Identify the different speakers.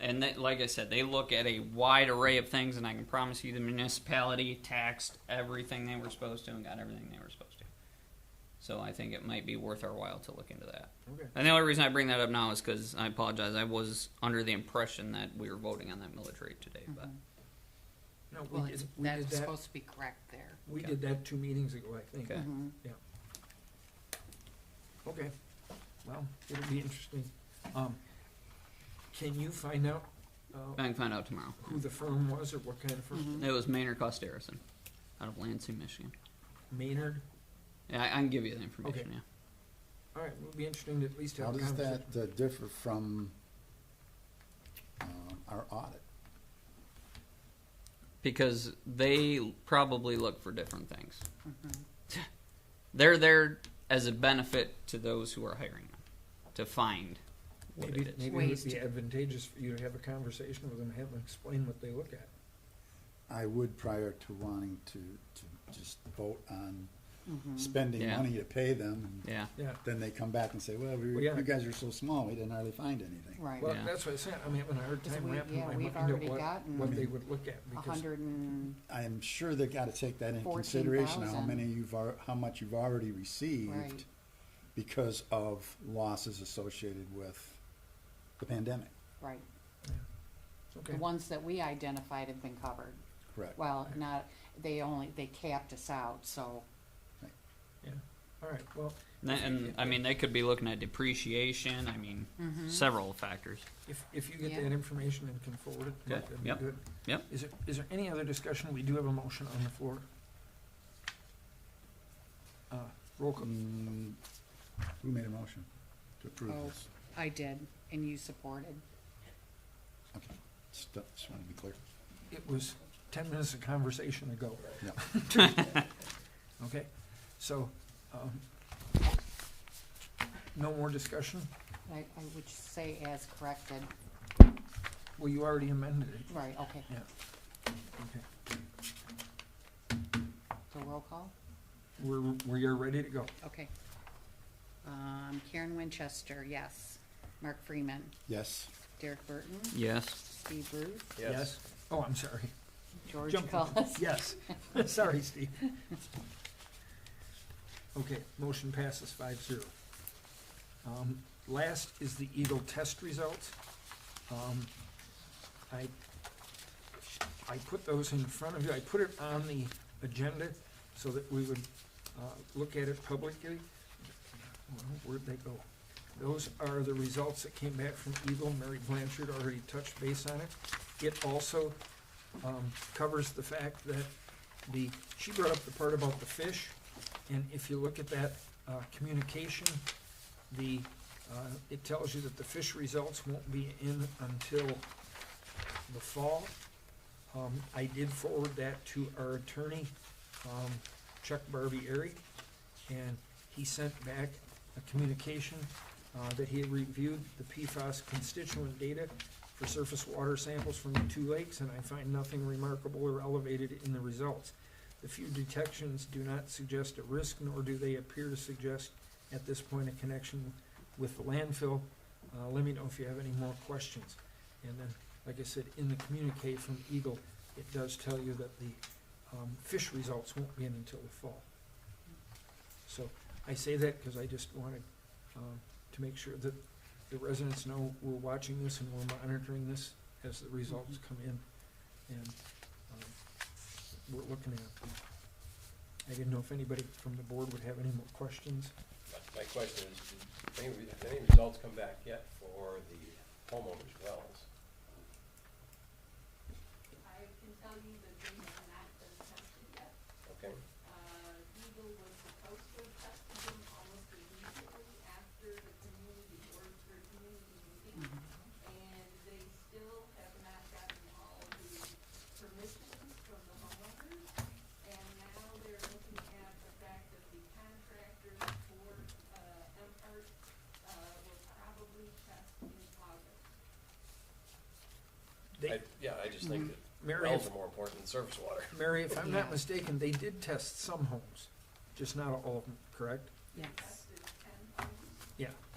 Speaker 1: and they, like I said, they look at a wide array of things, and I can promise you, the municipality taxed everything they were supposed to and got everything they were supposed to. So I think it might be worth our while to look into that.
Speaker 2: Okay.
Speaker 1: And the only reason I bring that up now is because I apologize. I was under the impression that we were voting on that military today,
Speaker 3: Mm-hmm.
Speaker 1: but
Speaker 2: No,
Speaker 3: Well,
Speaker 2: we did, we
Speaker 3: that's
Speaker 2: did that,
Speaker 3: supposed to be correct there.
Speaker 2: we
Speaker 1: Okay.
Speaker 2: did that two meetings ago, I think.
Speaker 3: Mm-hmm.
Speaker 1: okay.
Speaker 2: Okay, well, it'll be interesting. Um, can you find out,
Speaker 1: I
Speaker 2: uh,
Speaker 1: can find out tomorrow.
Speaker 2: who the firm was or what kind of
Speaker 3: Mm-hmm.
Speaker 2: firm?
Speaker 1: It was Maynard Costerison out of Lansing, Michigan.
Speaker 2: Maynard?
Speaker 1: Yeah, I, I can give you the information.
Speaker 2: Okay.
Speaker 1: Yeah.
Speaker 2: All right, it'll be interesting to at least have
Speaker 4: How
Speaker 2: a
Speaker 4: does that
Speaker 2: conversation.
Speaker 4: uh, differ from um, our audit?
Speaker 1: because they probably look for different things.
Speaker 3: mm-hmm,
Speaker 1: They're there as a benefit to those who are hiring them to find what
Speaker 2: Maybe,
Speaker 1: it is.
Speaker 2: maybe it would
Speaker 3: Waste.
Speaker 2: be advantageous for you to have a conversation with them, have them explain what they look at.
Speaker 4: I would prior to wanting to, to just vote on
Speaker 2: Mm-hmm.
Speaker 3: mm-hmm.
Speaker 4: spending
Speaker 1: Yeah.
Speaker 4: money to pay them. and
Speaker 1: Yeah,
Speaker 2: Yeah,
Speaker 4: Then they come back and say, well, we,
Speaker 2: Well, yeah.
Speaker 4: you guys are so small, we didn't hardly find anything.
Speaker 3: Right.
Speaker 2: well,
Speaker 1: Yeah.
Speaker 2: that's what I said, I'm having a hard
Speaker 3: Because
Speaker 2: time
Speaker 3: we-
Speaker 2: wrapping
Speaker 3: yeah,
Speaker 2: my
Speaker 3: we've
Speaker 2: mind
Speaker 3: already
Speaker 2: at what,
Speaker 3: gotten-
Speaker 2: what they would look at,
Speaker 3: A
Speaker 2: because
Speaker 3: hundred and,
Speaker 4: I am sure they gotta take that into consideration, how
Speaker 3: 14,000.
Speaker 4: many you've, al- how much you've already
Speaker 3: Right.
Speaker 4: received because of losses associated with the pandemic,
Speaker 3: right, the
Speaker 2: okay,
Speaker 3: ones that we identified have been covered.
Speaker 4: correct?
Speaker 3: Well, not, they only, they capped us out, so,
Speaker 2: all right, well,
Speaker 1: and, and I mean they could be looking at depreciation. I mean several factors.
Speaker 2: If, if you get
Speaker 3: Yeah.
Speaker 2: that information and can forward it,
Speaker 1: Good.
Speaker 2: that'd be
Speaker 1: Yep.
Speaker 2: good.
Speaker 1: Yep.
Speaker 2: Is there, is there any other discussion? We do have a motion on the floor. Uh, Roll call.
Speaker 4: Mm, Who made a motion to approve
Speaker 3: Oh.
Speaker 4: this?
Speaker 3: I did, and you supported.
Speaker 4: Okay, just, just wanna be clear.
Speaker 2: It was ten minutes of conversation ago.
Speaker 4: Yeah.
Speaker 2: Okay, so, um, no more discussion?
Speaker 3: I, I would say as corrected,
Speaker 2: Well, you already amended it.
Speaker 3: right, okay,
Speaker 2: Okay,
Speaker 3: so roll call,
Speaker 2: We're, we are ready to go.
Speaker 3: okay. Um, Karen Winchester, yes. Mark Freeman,
Speaker 4: Yes.
Speaker 3: Derek Burton,
Speaker 1: Yes.
Speaker 3: Steve Bruce,
Speaker 2: Yes. Oh, I'm sorry.
Speaker 3: George
Speaker 2: Jump on.
Speaker 3: Cullis.
Speaker 2: Yes. Sorry, Steve. Okay, motion passes five zero. Um, last is the Eagle test results. Um, I, I put those in front of you, I put it on the agenda so that we would, uh, look at it publicly. Well, Where'd they go? Those are the results that came back from Eagle, Mary Blanchard already touched base on it. It also, um, covers the fact that the, she brought up the part about the fish, and if you look at that, uh, communication, the, uh, it tells you that the fish results won't be in until the fall. Um, I did forward that to our attorney, um, Chuck Barbieri, and he sent back a communication, uh, that he had reviewed the PFAS constituent data for surface water samples from the two lakes, and I find nothing remarkable or elevated in the results. The few detections do not suggest a risk, nor do they appear to suggest at this point a connection with the landfill. Uh, let me know if you have any more questions. And then, like I said, in the communique from Eagle, it does tell you that the, um, fish results won't be in until the fall. So I say that because I just wanted, um, to make sure that the residents know we're watching this and we're monitoring this as the results come in, and, um, we're looking at them. I didn't know if anybody from the board would have any more questions.
Speaker 5: My question is, did any, did any results come back yet for the homeowners' wells?
Speaker 6: I can tell you that they have not been tested yet.
Speaker 5: Okay,
Speaker 6: Uh, Eagle was supposed to have tested them almost immediately after the community or their community meeting.
Speaker 3: Mm-hmm.
Speaker 6: And they still have not gotten all the permissions from the homeowners. And now they're looking at the fact that the contractors for, uh, Empire, uh, will probably test in August.
Speaker 2: They, Mm-hmm.
Speaker 5: I, yeah, I just think that
Speaker 2: Mary,
Speaker 5: wells
Speaker 2: if,
Speaker 5: are more important than surface water.
Speaker 2: Mary, if I'm not
Speaker 3: Yeah.
Speaker 2: mistaken, they did test some homes, just not all of them, correct?
Speaker 3: Yes,
Speaker 6: Tested ten homes.
Speaker 2: Yeah,